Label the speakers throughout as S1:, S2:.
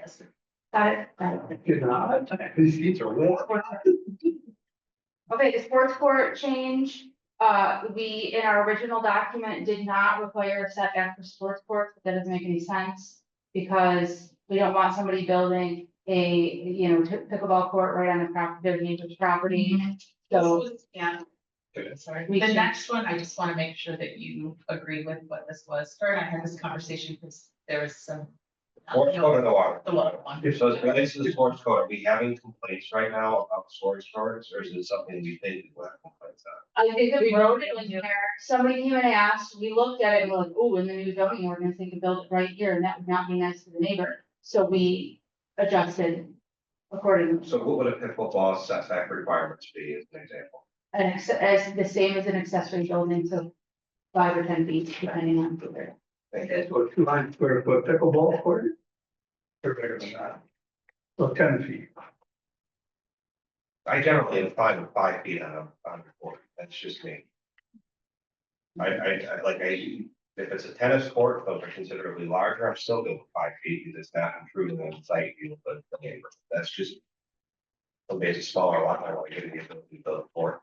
S1: Yes. Got it?
S2: You're not, these seats are warm.
S1: Okay, the sports court change, uh, we, in our original document, did not require a setback for sports courts, but that doesn't make any sense. Because we don't want somebody building a, you know, t- pickleball court right on the property, their neighbor's property,
S3: This
S1: so.
S3: was- Yeah, sorry.
S1: We
S3: The
S1: should-
S3: next one, I just want to make sure that you agree with what this was. Her and I had this conversation because there was some. uh,
S4: Sports code or the water?
S3: The water one.
S4: So as it relates to the sports code, are we having complaints right now about sports codes, or is it something we think we will have complaints on?
S1: I think that we
S3: We
S1: wrote
S3: wrote
S1: it
S3: it
S1: in
S3: in
S1: there, somebody came and asked, we looked at it, and we're like, oh, in the new zoning ordinance, they could build it right here, and that would not be nice to the neighbor. So we adjusted accordingly,
S4: So what would a pickleball setback requirements be as an example?
S1: and ex- as the same as an accessory building, so five or ten feet, depending on. the
S4: Thank you.
S2: That's what two hundred square foot pickleball court. is? Or bigger than that. So ten feet.
S4: I generally am fine with five feet on a, on a court, that's just me. I, I, I- like, I, if it's a tennis court, those are considerably larger, I'm still good with five feet, because it's not improving on site, you know, but the neighbor, that's just. Somebody's a smaller lot, I want to give the ability to build a court,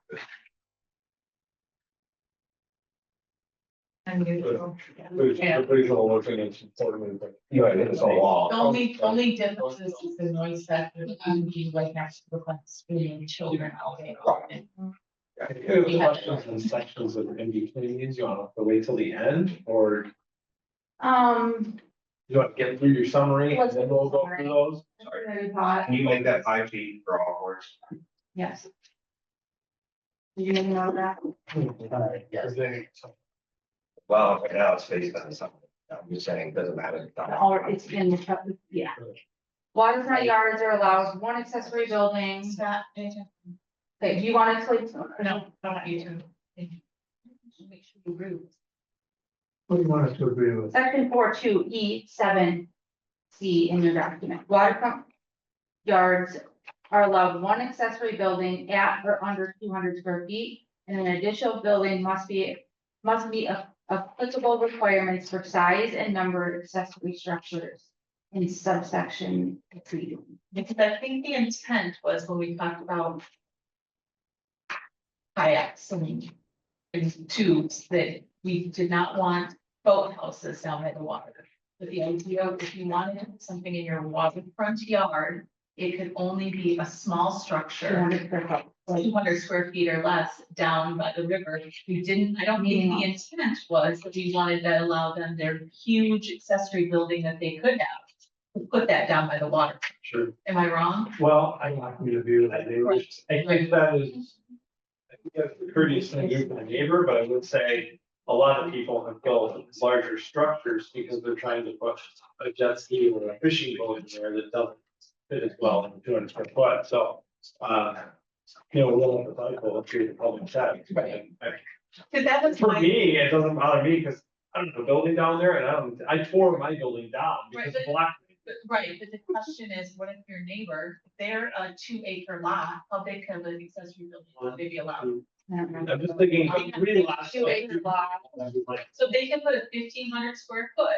S3: Unusual. Yeah.
S5: Pretty sure one thing that's important, but.
S4: you know, it's a wall.
S3: The only, only difference is the noise factor, um, being right next to the class, being children all day long.
S5: If you have questions and sections of in between these, you wanna have to wait till the end, or
S1: Um.
S5: you wanna get through your summary and then we'll go through those?
S1: Very hot,
S4: Can you make that five feet for all courts?
S1: yes. You didn't know that?
S5: Is there-
S4: Well, right now it's based on something, I'm just saying, it doesn't matter.
S1: Or it's in the, chapter- yeah. Waterfront yards are allowed one accessory building,
S3: Scott,
S1: Okay, do you want to sleep?
S3: no, I want you to. Make sure you agree. with
S2: What do you want us to agree with?
S1: Section four two E seven C in your document, waterfront yards are allowed one accessory building at or under two hundred square feet. And an additional building must be, must meet a- applicable requirements for size and number of accessory structures in subsection three.
S3: Because I think the intent was when we talked about. Kayaks and. and tubes that we did not want boathouses down by the water. But the idea, of if you wanted to put something in your waterfront yard, it could only be a small
S1: Two
S3: structure.
S1: hundred square foot.
S3: Two hundred square feet or less down by the river, we didn't, I don't mean the intent was, that we wanted to allow them their huge accessory building that they could have. Put that down by the water,
S5: Sure,
S3: am I wrong?
S5: well, I'm not gonna view that, neighbor. I think that is. I think that's the courteous thing to do for the neighbor, but I would say a lot of people have built larger structures because they're trying to put a jet ski or a fishing boat in there that doesn't fit as well in two hundred square foot, so, uh. You know, we'll have to talk about the public setting.
S3: Right. Cause that was
S5: For
S3: my,
S5: me, it doesn't bother me, because I don't have a building down there, and I don't, I tore my building down because
S3: Right,
S5: of
S3: but-
S5: block.
S3: but- right, but the question is, what if your neighbor, if they're a two acre lot, how big can an accessory building lot they be
S5: um,
S3: allowed?
S5: I'm just thinking, how three lots.
S1: Two acre lot.
S5: Like,
S3: So they can put a fifteen hundred square foot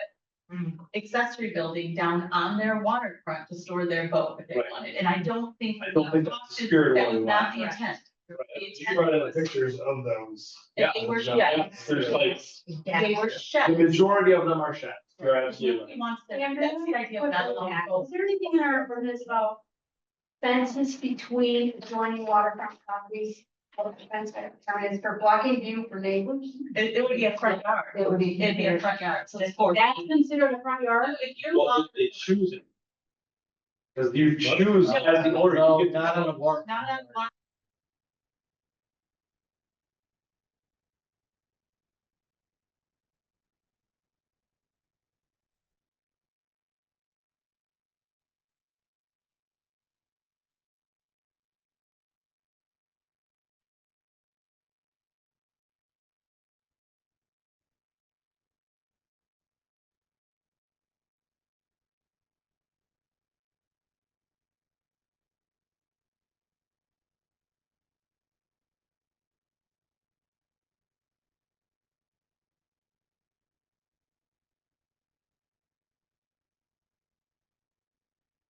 S3: accessory building down on their waterfront to store their boat if they
S5: Right.
S3: wanted, and I don't think.
S5: I don't think that's the spirit of
S3: That
S5: what we
S3: was not
S5: want.
S3: the intent. The
S5: You
S3: intent
S5: brought in
S3: was,
S5: pictures of those.
S3: that they were
S1: yeah.
S3: sheds.
S5: There's like,
S3: They were
S5: the
S3: sheds.
S5: majority of them are sheds, you're absolutely right.
S3: Nobody wants that.
S1: Amber,
S3: that's the idea of not allowing boats.
S1: Is there anything in our ordinance about fences between adjoining waterfront properties? Or the fence that is for blocking view for neighbors?
S3: It, it would be a front yard.
S1: It would be.
S3: It'd be a front yard, so it's four.
S1: That's considered a front yard?
S3: If you're
S5: Well,
S3: long,
S5: they choose it. Because you choose as the owner, you get
S3: not on one